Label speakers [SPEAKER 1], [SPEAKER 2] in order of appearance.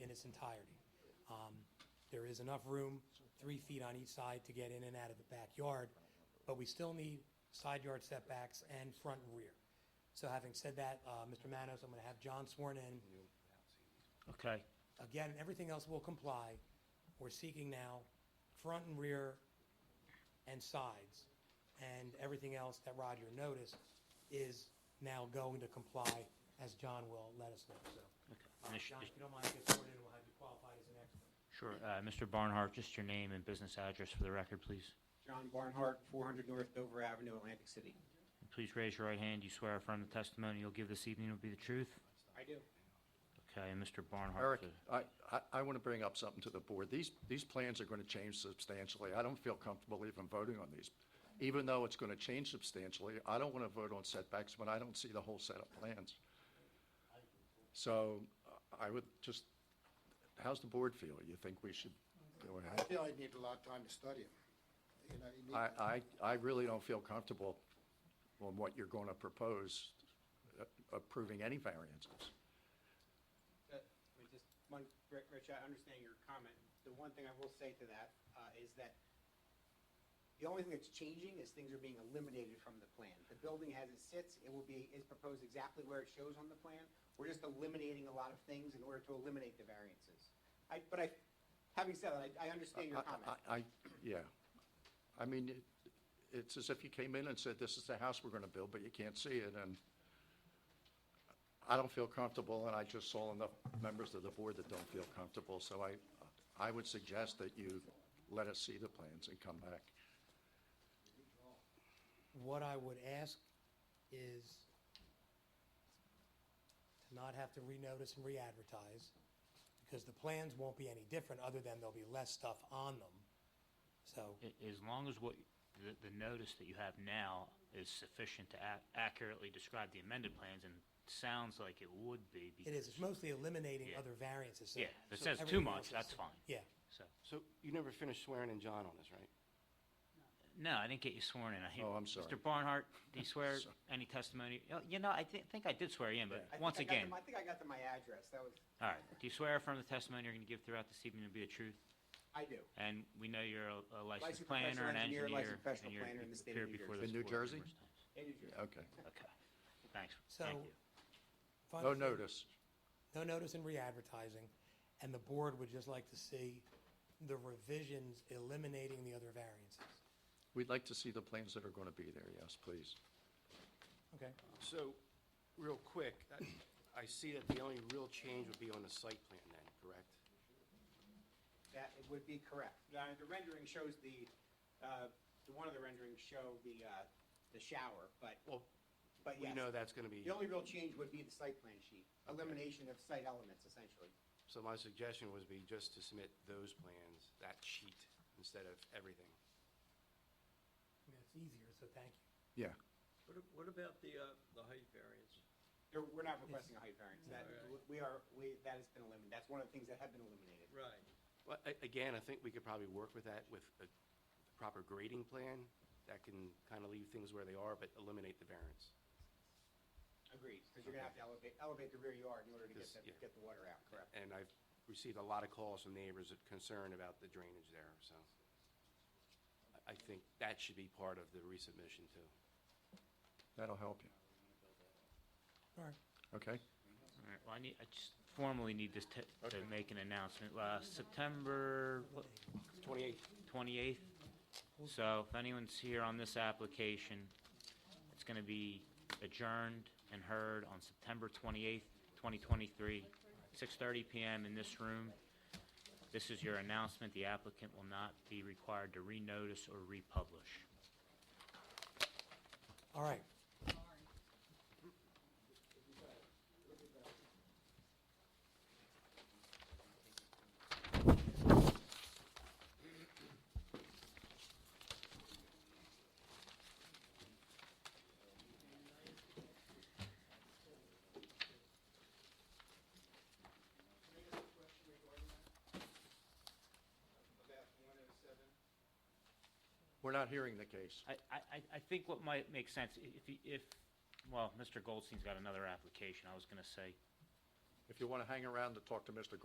[SPEAKER 1] its entirety. Um, There is enough room, three feet on each side, to get in and out of the backyard, but we still need side yard setbacks and front and rear. So having said that, uh, Mr. Manos, I'm going to have John sworn in.
[SPEAKER 2] Okay,
[SPEAKER 1] Again, everything else will comply. We're seeking now front and rear and sides, and everything else that Roger noticed is now going to comply, as John will let us know, so.
[SPEAKER 2] okay.
[SPEAKER 1] Uh,
[SPEAKER 2] And it's-
[SPEAKER 1] John, if
[SPEAKER 2] it's-
[SPEAKER 1] you don't mind, get sworn in, we'll have you qualified as an expert.
[SPEAKER 2] Sure. Uh, Mr. Barnhart, just your name and business address for the record, please.
[SPEAKER 3] John Barnhart, 400 North Dover Avenue, Atlantic City.
[SPEAKER 2] Please raise your right hand. You swear affirm the testimony you'll give this evening will be the truth?
[SPEAKER 3] I do.
[SPEAKER 2] Okay, and Mr. Barnhart. uh,
[SPEAKER 4] Eric,
[SPEAKER 2] the-
[SPEAKER 4] I, I, I want to bring up something to the board. These, these plans are going to change substantially. I don't feel comfortable even voting on these. Even though it's going to change substantially, I don't want to vote on setbacks when I don't see the whole set of plans. So uh, I would just, how's the board feel? You think we should go
[SPEAKER 5] I
[SPEAKER 4] ahead?
[SPEAKER 5] feel I need a lot of time to study them. You know, you need,
[SPEAKER 4] I, I, I really don't feel comfortable on what you're going to propose, uh, approving any variances.
[SPEAKER 3] Uh, we just- one- Ri- Rich, I understand your comment. The one thing I will say to that uh, is that the only thing that's changing is things are being eliminated from the plan. The building as it sits, it will be, is proposed exactly where it shows on the plan. We're just eliminating a lot of things in order to eliminate the variances. I, but I, having said that, I, I understand
[SPEAKER 2] Uh,
[SPEAKER 3] your
[SPEAKER 4] I-
[SPEAKER 3] comment.
[SPEAKER 4] I, I- yeah. I mean, it- it's as if you came in and said, this is the house we're going to build, but you can't see it, and I don't feel comfortable, and I just saw enough members of the board that don't feel comfortable, so I, I would suggest that you let us see the plans and come back.
[SPEAKER 1] What I would ask is to not have to renotice and re-advertise, because the plans won't be any different, other than there'll be less stuff on them. So,
[SPEAKER 2] a- As long as what, the, the notice that you have now is sufficient to ac- accurately describe the amended plans, and sounds like it would be.
[SPEAKER 1] it is, it's
[SPEAKER 2] because-
[SPEAKER 1] mostly eliminating
[SPEAKER 2] Yeah.
[SPEAKER 1] other variances. so-
[SPEAKER 2] Yeah, if it
[SPEAKER 1] so
[SPEAKER 2] says too
[SPEAKER 1] everything else
[SPEAKER 2] much,
[SPEAKER 1] is-
[SPEAKER 2] that's fine.
[SPEAKER 1] Yeah.
[SPEAKER 2] So,
[SPEAKER 6] So you never finished swearing in John on us, right?
[SPEAKER 2] no, I didn't get you sworn in. I-
[SPEAKER 4] Oh, I'm sorry.
[SPEAKER 2] Mr. Barnhart, do you swear
[SPEAKER 4] Sorry.
[SPEAKER 2] any testimony? Oh, You know, I thi- think I did swear you in,
[SPEAKER 4] Yeah. I
[SPEAKER 2] but
[SPEAKER 3] think
[SPEAKER 2] once
[SPEAKER 3] I got to
[SPEAKER 2] again,
[SPEAKER 3] my- I
[SPEAKER 2] all
[SPEAKER 3] think I got to my address. That was,
[SPEAKER 2] right. Do you swear affirm the testimony you're going to give throughout this evening to be the truth?
[SPEAKER 3] I do.
[SPEAKER 2] And we know you're a- a licensed
[SPEAKER 3] Licensed
[SPEAKER 2] planner,
[SPEAKER 3] professional
[SPEAKER 2] an
[SPEAKER 3] engineer,
[SPEAKER 2] engineer.
[SPEAKER 3] licensed professional
[SPEAKER 2] and you're-
[SPEAKER 3] planner in the
[SPEAKER 2] you've
[SPEAKER 3] state of
[SPEAKER 2] appeared
[SPEAKER 3] New
[SPEAKER 2] before
[SPEAKER 3] Jersey.
[SPEAKER 2] this
[SPEAKER 4] In New
[SPEAKER 2] board
[SPEAKER 4] Jersey?
[SPEAKER 2] numerous times.
[SPEAKER 3] It is yours.
[SPEAKER 4] Okay.
[SPEAKER 2] Okay, thanks,
[SPEAKER 1] So-
[SPEAKER 2] thank you.
[SPEAKER 1] If I
[SPEAKER 4] No
[SPEAKER 1] understand-
[SPEAKER 4] notice.
[SPEAKER 1] No notice in re-advertising, and the board would just like to see the revisions eliminating the other variances.
[SPEAKER 4] We'd like to see the plans that are going to be there, yes, please.
[SPEAKER 1] Okay.
[SPEAKER 6] So, real quick, I- I see that the only real change would be on the site plan then, correct?
[SPEAKER 3] That it would be correct. Uh, The rendering shows the, uh, the one of the renderings show the, uh, the shower, but,
[SPEAKER 6] Well,
[SPEAKER 3] but
[SPEAKER 6] we know
[SPEAKER 3] yes.
[SPEAKER 6] that's going to be,
[SPEAKER 3] The only real change would be the site plan sheet, elimination of site elements essentially.
[SPEAKER 6] so my suggestion would be just to submit those plans, that sheet, instead of everything.
[SPEAKER 1] I mean, it's easier, so thank you.
[SPEAKER 4] Yeah.
[SPEAKER 7] What, a- what about the, uh, the height variance?
[SPEAKER 3] There- We're not requesting a height variance. That,
[SPEAKER 7] Alright.
[SPEAKER 3] we are, we, that has been eliminated. That's one of the things that have been eliminated.
[SPEAKER 7] Right.
[SPEAKER 6] But a- again, I think we could probably work with that with a proper grading plan that can kind of leave things where they are, but eliminate the variance.
[SPEAKER 3] Agreed, because you're gonna have to elevate, elevate the rear yard in order to get
[SPEAKER 6] Yes,
[SPEAKER 3] the,
[SPEAKER 6] yeah.
[SPEAKER 3] get the water out, correct?
[SPEAKER 6] And I've received a lot of calls from neighbors concerned about the drainage there, so I- I think that should be part of the resubmission too.
[SPEAKER 4] That'll help you.
[SPEAKER 1] All right.
[SPEAKER 4] Okay?
[SPEAKER 2] All right, well, I need, I just formally need this to, to make an announcement. Uh, September what,
[SPEAKER 6] 28,
[SPEAKER 2] 28th. So if anyone's here on this application, it's going to be adjourned and heard on September 28th, 2023, 6:30 PM in this room. This is your announcement. The applicant will not be required to renotice or republish.
[SPEAKER 1] All right.
[SPEAKER 3] oh
[SPEAKER 4] We're not hearing the case.
[SPEAKER 2] I, I, I- I think what might make sense, i- if, he- if, well, Mr. Goldstein's got another application, I was going to say,
[SPEAKER 4] If you want to hang around to talk to Mr.